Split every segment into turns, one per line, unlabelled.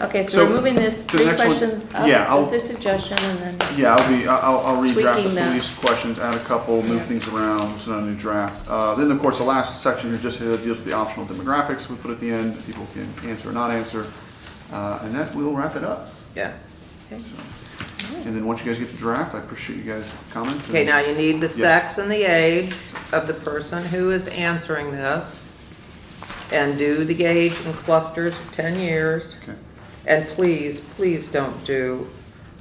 Okay, so
So,
we're moving this
the
three
next one-
questions up,
yeah, I'll-
that's their suggestion, and then,
Yeah, I'll be, I'll, I'll redraft
Tweaking
the
that.
police questions, add a couple, move things around, send out a new draft. Uh, then, of course, the last section here just uh, deals with the optional demographics we put at the end, people can answer or not answer. Uh, and that will wrap it up.
Yeah.
okay.
And then once you guys get the draft, I appreciate you guys' comments.
Okay,
and-
now you need the sex and the age of the person who is answering this. And do the age in clusters of ten years.
Okay.
And please, please don't do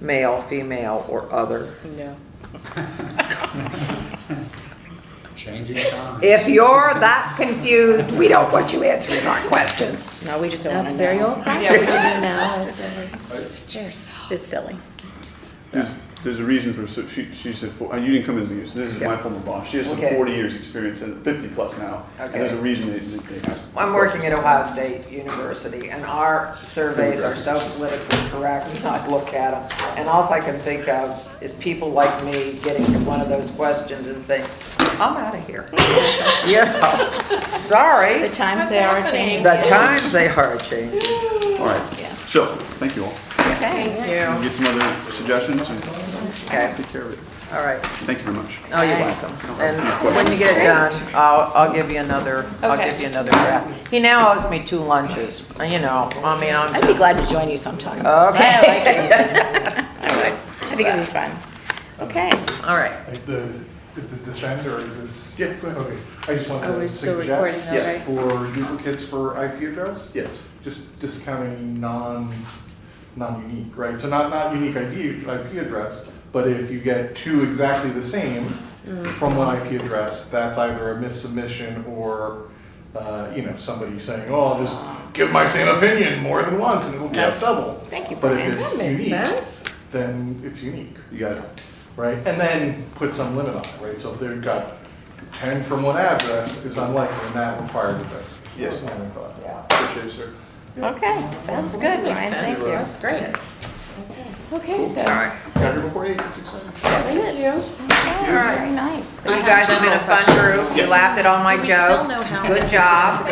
male, female, or other.
No.
Changing time.
If you're that confused, we don't want you answering our questions.
No, we just don't want
That's
to
very
know.
old fashioned now. it's over.
Cheers. It's silly.
There's, there's a reason for, so she, she said, four- uh, you didn't come into this, this is my
Yeah.
former boss. She has some
Okay.
forty years experience, and fifty plus now. And
Okay.
there's a reason they, they they asked.
I'm working at Ohio State University, and our surveys are so politically correct, and I look at them, and all I can think of is people like me getting to one of those questions and think, I'm out of here. Yeah,
The
sorry,
times they are changing.
the times they are changing.
All right, so, thank you all.
Okay.
Yeah.
Get some other suggestions and
Okay,
take care of it.
all right.
Thank you very much.
Oh, you're welcome. And when you get it done, I'll, I'll give you another, I'll
Okay.
give you another draft. He now owes me two lunches, and you know, I mean, I'm
I'd be glad to join you sometime.
Oh, Okay.
I think it'd be fun. Okay.
All right.
Like the, did the descend or this?
Yeah, go ahead.
Okay, I just
Are
wanted
we
to
Oh, still recording
suggest
though,
Yes.
right?
for duplicates for IP address?
Yes.
Just discounting non, non-unique, right? So not, not unique ID, IP address, but if you get two exactly the same
Mm.
from one IP address, that's either a missubmission or, uh, you know, somebody saying, oh, I'll just give my same opinion more than once and it'll count
Yes.
double.
Thank you,
But
Brian.
if it's
That makes
unique,
sense.
then it's unique
You got it.
right? And then put some limit on it, right? So if they've got ten from one address, it's unlikely, and that requires investigation.
Yes.
That's my thought.
Appreciate it, sir.
Okay, that's good, Brian. Thank you.
That's great. Okay,
All
so,
right.
Got here before eight, it's exciting.
thank you.
Okay, Very nice.
You guys have been a fun group. You laughed at all my jokes. Good job.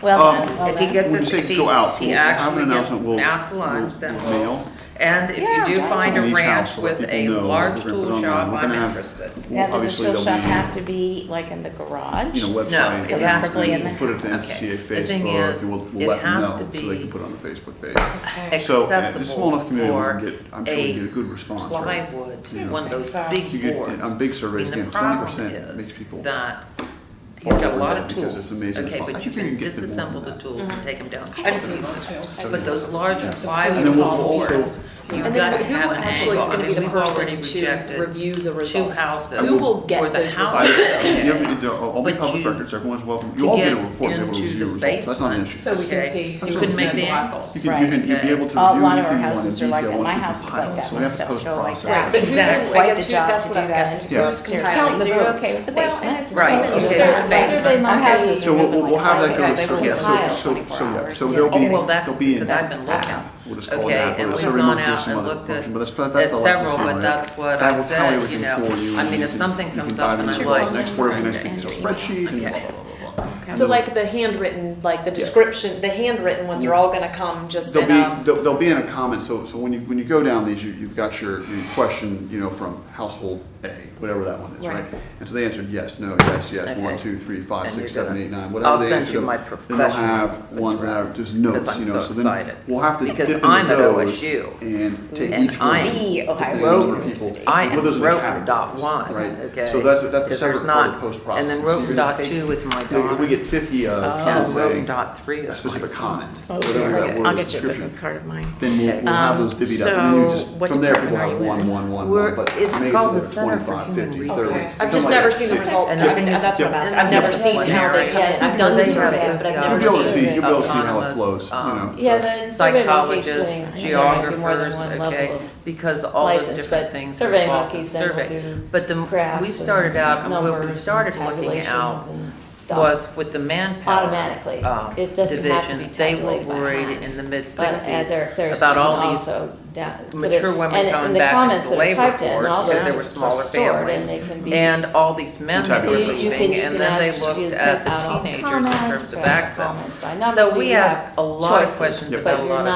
Well
Um,
done, well
If he
done.
gets
When you
it,
say
if he,
go out,
if he
we'll have an
actually gets
announcement, we'll.
out to lunch,
we'll-
then
we'll
we'll.
mail
And if
Yeah,
you do
exactly.
find a
from each
ranch
house, let
with
people
a
know what
large
we're gonna put
tool
online.
shop,
We're gonna
I'm
have-
interested.
we'll-
Now, does the
obviously
tool
there'll
shop
be,
have to be like in the garage?
You know, website.
No, it
and
has to
everything.
be-
We'll Put it to NCCA
The thing
Facebook,
is,
and we'll,
it
we'll let them
has
know,
to
so they
be
can put it on the Facebook page. So, uh,
Accessible
it's a small enough community,
for
we can get, I'm sure we can get a
a
good response, right?
plywood, one of those
You
big
get,
boards.
on big surveys,
And the
again, twenty
problem
percent makes
is
people.
that he's got a lot of
Because
tools.
it's amazing.
Okay,
Well, I
but you
think we can
can
get them more than
disassemble the
that.
tools and take them down. But those larger
And then
plywood
we'll also-
boards, you've
And
got
then
to
who
have an
actually
angle.
is
I
gonna
mean,
be the
we've already
person to
rejected
review the results?
houses.
Who will
for
get
the
those
house-
results?
You have, to- all be
But
public
you-
records, everyone's welcome,
to
you all get a
get
report, and be able to
into
review
the
results, that's not an
basement.
issue.
So we can
Okay.
see
You
who
can
was
make
in
the
what.
angles.
You can, you
Right.
can, you'd be able to
A lot of
review
our
anything you want in
houses are like
detail
that.
once
My
we
house is
compile
like
it.
that.
So
My
we have to
stuff's still like
post-process.
that.
But who's,
Exactly.
I
Quite the
guess who-
job to
that's what
do
I'm
that.
getting to.
Yeah.
Who's
Seriously.
compiling the
So you're
votes?
okay with the
Well,
basement?
and it's
Right,
women,
okay.
so-
Yeah.
Survey, survey my
Okay.
houses.
So we'll, we'll we'll have that go,
because
so,
they
yeah,
will pile
so, so,
24
so, yeah,
hours.
so there'll be,
Oh, well, that's
there'll be
the
an
thing I've been looking.
app, we'll just call it
Okay,
app,
and
or a
we've
survey
gone
monkey or
out
some
and
other
looked at-
function, but that's, that's the
at
elected
several,
summary.
but that's what
That
I
will tally
said,
everything
you know.
for you,
I
and
mean,
you
if
can-
something comes up and
You
I'm
can dive into
like,
next quarter, next
okay.
week, so spreadsheet, and blah, blah, blah, blah, blah.
So like the handwritten, like the description, the handwritten ones are all gonna come just
They'll
in
be,
um,
a,
they'll, they'll be in a comment, so, so when you, when you go down these, you, you've got your, your question, you know, from household A, whatever that one is, right?
Right.
And so they answered yes, no, yes, yes, one,
Okay.
two, three, five,
And
six,
you're
seven,
gonna-
eight, nine,
I'll
whatever they
send
answered.
you my
Then they'll have
professional
ones that are
address,
just
'cause
notes,
I'm
you know,
so
so then
excited.
we'll have to dip
Because
into
I'm at
those
OSU,
and take
and
each one.
I
The Ohio
dip into
State
the number of
University.
people,
I
put
am
those in the
Roten
categories,
dot one,
right?
okay?
So that's, that's a
Because there's
separate part of
not-
the post-process.
And then
Because
Roten dot
if they-
two is my
you know, If we
daughter.
get fifty of,
And
them
Roten
saying,
dot three is my
a specific
son.
comment,
Oh, Okay.
whatever that word
I'll get you a
is, description,
business card of mine.
then we'll, we'll have those divvied up, and then you
Um, so
just,
what
from there, people
department
have
are you
one,
in?
one, one,
We're-
one, but
it's
maybe
called the
it's
Center
like
for
25,
Human
50, 30.
Resources.
I've
something
just
like
never
that.
seen the
Six.
results,
And
I've,
I-
that's what I'm
Yeah.
asking, I've never
Yeah.
seen how they come in, I've done the
Yes.
surveys, but I've
Yes.
You'll
never
be able to
seen.
see, you'll be able to see how it
Autonomous,
flows, you
um,
know.
Yeah,
but-
the survey monkey's doing,
psychologists,
I know there might be more than
geographers,
one
okay,
level of
because all those
license,
different
but
things are
survey
involved in
monkeys then will
survey.
do
But the,
graphs
we started
and
out, and when we
numbers
started
and
looking
tabulations
out,
and
stuff.
was with the manpower.
Automatically.
um,
It doesn't have to be
division, They were
tabulated by
worried
hand.
in the
But as
mid-sixties
Eric Sarah
about all
said,
these
also down- put it-
mature women
and- and
coming
the
back into
comments
the
that are
labor
typed in,
force
all
because
those
there were
are
smaller
stored
families.
And they can be.
and all these men that were
So you-
Tabulate
you can-
leaving,
you
and
can
then they
actually
looked
put
at the
out all
teenagers in
comments,
terms of
put out
backfill.
comments by numbers,
So
so
we
you have
ask a lot of
choices,
questions
but
about a
you're
lot of
not